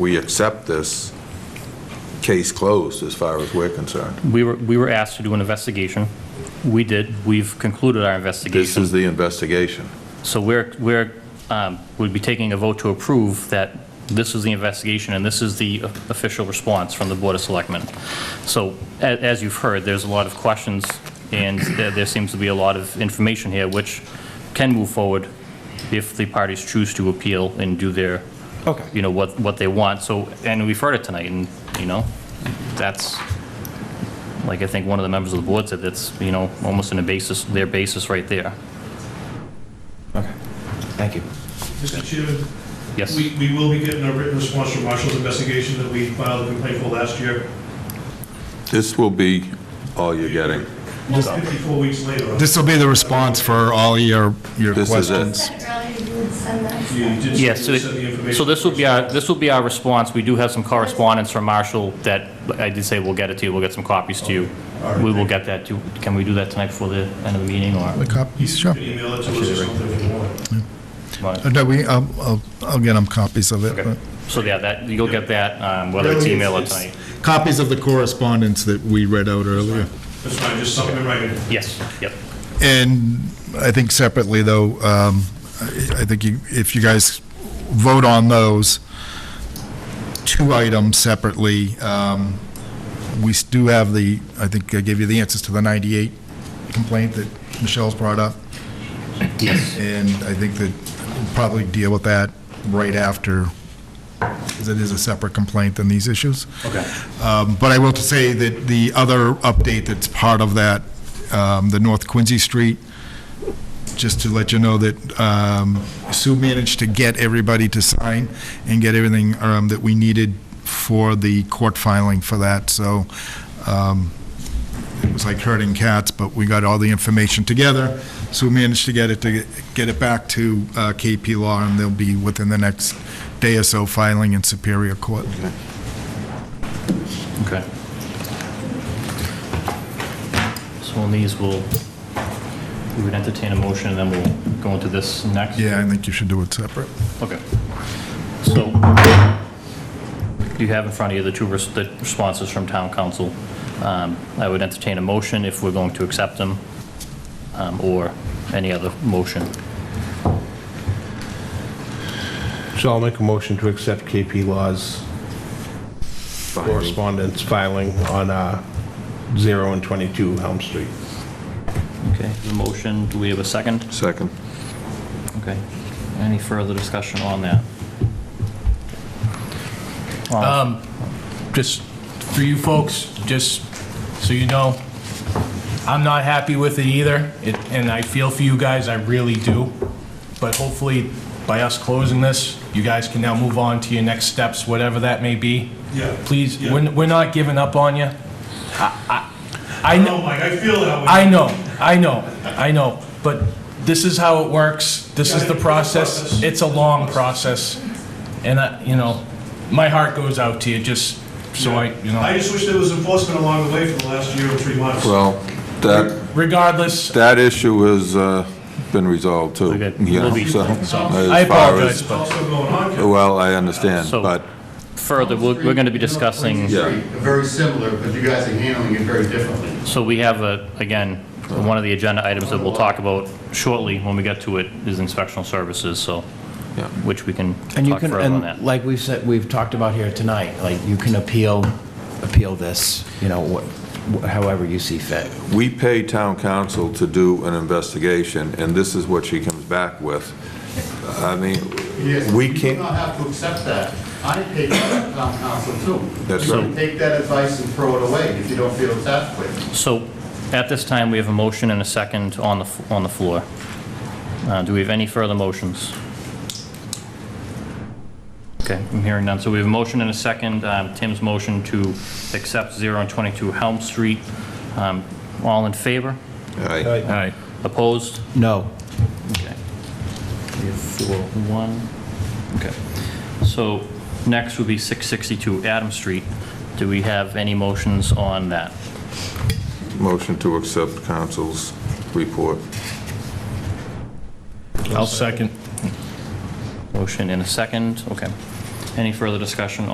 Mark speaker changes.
Speaker 1: we accept this case closed as far as we're concerned.
Speaker 2: We were, we were asked to do an investigation. We did. We've concluded our
Speaker 1: This
Speaker 2: investigation.
Speaker 1: is the investigation.
Speaker 2: So we're, we're, um, we'd be taking a vote to approve that this is the investigation and this is the official response from the Board of Selectmen. So a- as you've heard, there's a lot of questions and there there seems to be a lot of information here which can move forward if the parties choose to appeal and do their,
Speaker 3: Okay.
Speaker 2: you know, what, what they want. So, and we've heard it tonight and, you know, that's, like I think one of the members of the board said, that's, you know, almost in a basis, their basis right there.
Speaker 3: Okay, thank you.
Speaker 4: Mr. Chairman,
Speaker 2: Yes?
Speaker 4: we, we will be getting a written response from Marshall's investigation that we filed a complaint for last year.
Speaker 1: This will be all you're getting.
Speaker 4: Fifty-four weeks later.
Speaker 5: This will be the response for all your, your
Speaker 1: This is it.
Speaker 5: questions.
Speaker 6: said earlier you would send that.
Speaker 4: You did say you
Speaker 2: Yes, so
Speaker 4: sent the
Speaker 2: it-
Speaker 4: information
Speaker 2: so this will be our,
Speaker 4: first.
Speaker 2: this will be our response. We do have some correspondence from Marshall that, I did say we'll get it to you, we'll get some copies to you. We will get that to, can we do that tonight before the end of the meeting, or?
Speaker 5: The copies, sure.
Speaker 4: You can Email it to us or something if you want.
Speaker 5: Uh, No, we, I'll, I'll- I'll get them copies of it.
Speaker 2: Okay. So, yeah, that, you'll get that, um, whether it's email or tonight.
Speaker 5: Copies of the correspondence that we read out earlier.
Speaker 4: That's fine, just something in writing.
Speaker 2: Yes, yep.
Speaker 5: And I think separately, though, um, I I think you- if you guys vote on those two items separately, um, we s- do have the, I think I gave you the answers to the 98 complaint that Michelle's brought up. Yes. And I think that we'll probably deal with that right after, because it is a separate complaint than these issues.
Speaker 2: Okay.
Speaker 5: Um, But I will say that the other update that's part of that, um, the North Quincy Street, just to let you know that um, Sue managed to get everybody to sign and get everything um, that we needed for the court filing for that, so um, it was like herding cats, but we got all the information together. Sue managed to get it, to get it back to uh, KP Law, and they'll be within the next day or so filing in Superior Court.
Speaker 2: Okay. So on these, we'll, we would entertain a motion, and then we'll go into this next?
Speaker 5: Yeah, I think you should do it separate.
Speaker 2: Okay. So you have in front of you the two res- the responses from town council. Um, I would entertain a motion if we're going to accept them, um, or any other motion.
Speaker 3: So I'll make a motion to accept KP Law's correspondence filing on uh, 0 and 22 Helm Street.
Speaker 2: Okay, the motion, do we have a second?
Speaker 1: Second.
Speaker 2: Okay. Any further discussion on that? Um.
Speaker 7: just for you folks, just so you know, I'm not happy with it either, It- and I feel for you guys, I really do. But hopefully, by us closing this, you guys can now move on to your next steps, whatever that may be.
Speaker 4: Yeah.
Speaker 7: Please,
Speaker 4: Yeah.
Speaker 7: we're we're not giving up on you. I
Speaker 4: I
Speaker 7: know.
Speaker 4: know, Oh, Mike, I feel that way.
Speaker 7: I know, I know, I know, but this is how it works, this is the process, it's a long process, and I, you know, my heart goes out to you, just so I, you
Speaker 4: I
Speaker 7: know,
Speaker 4: just wish there was enforcement along the way for the last year or three months.
Speaker 1: Well, that,
Speaker 7: regardless,
Speaker 1: that issue has uh, been resolved, too.
Speaker 2: Okay.
Speaker 1: you know,
Speaker 2: We'll be-
Speaker 1: so,
Speaker 7: I
Speaker 1: as far
Speaker 7: apologize,
Speaker 1: as-
Speaker 4: It's
Speaker 7: but
Speaker 4: also going on, Kevin.
Speaker 1: Well, I understand,
Speaker 2: So-
Speaker 1: but
Speaker 2: Further, we're we're going to be discussing.
Speaker 1: Yeah.
Speaker 8: Very similar, but you guys are handling it very differently.
Speaker 2: So we have a, again, one of the agenda items that we'll talk about shortly when we get to it is inspectional services, so,
Speaker 1: Yeah.
Speaker 2: which we can
Speaker 9: And you
Speaker 2: talk
Speaker 9: can,
Speaker 2: further on that.
Speaker 9: and like we've said, we've talked about here tonight, like you can appeal, appeal this, you know, wh- wh- however you see fit.
Speaker 1: we pay town council to do an investigation, and this is what she comes back with. I mean,
Speaker 8: Yes,
Speaker 1: we
Speaker 8: You do
Speaker 1: can't,
Speaker 8: not have to accept that. I take that as town council too.
Speaker 1: That's
Speaker 8: You can
Speaker 1: right.
Speaker 8: Take that advice and throw it away if you don't feel it's adequate.
Speaker 2: So at this time, we have a motion and a second on the, f- on the floor. Uh, Do we have any further motions? Okay, I'm hearing none. So we have a motion and a second, um, Tim's motion to accept 0 and 22 Helm Street. Um, All in favor?
Speaker 1: I-
Speaker 2: Opposed?
Speaker 9: No.
Speaker 2: Okay. We have four, one. Okay. So next would be 662 Adam Street. Do we have any motions on that?
Speaker 1: motion to accept council's report.
Speaker 7: I'll second.
Speaker 2: Motion in a second, okay. Any further discussion